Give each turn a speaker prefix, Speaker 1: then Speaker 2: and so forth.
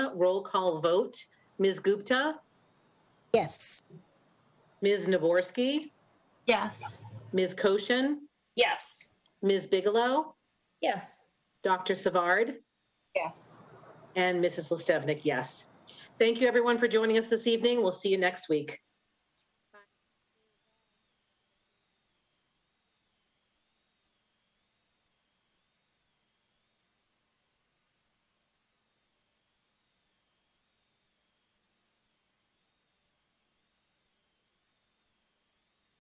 Speaker 1: roll call vote. Ms. Gupta,
Speaker 2: Yes.
Speaker 1: Ms. Naborsky,
Speaker 3: Yes.
Speaker 1: Ms. Koshin,
Speaker 4: Yes.
Speaker 1: Ms. Bigelow,
Speaker 4: Yes.
Speaker 1: Dr. Savard,
Speaker 4: Yes.
Speaker 1: and Mrs. Listevnik, yes. Thank you, everyone, for joining us this evening. We'll see you next week.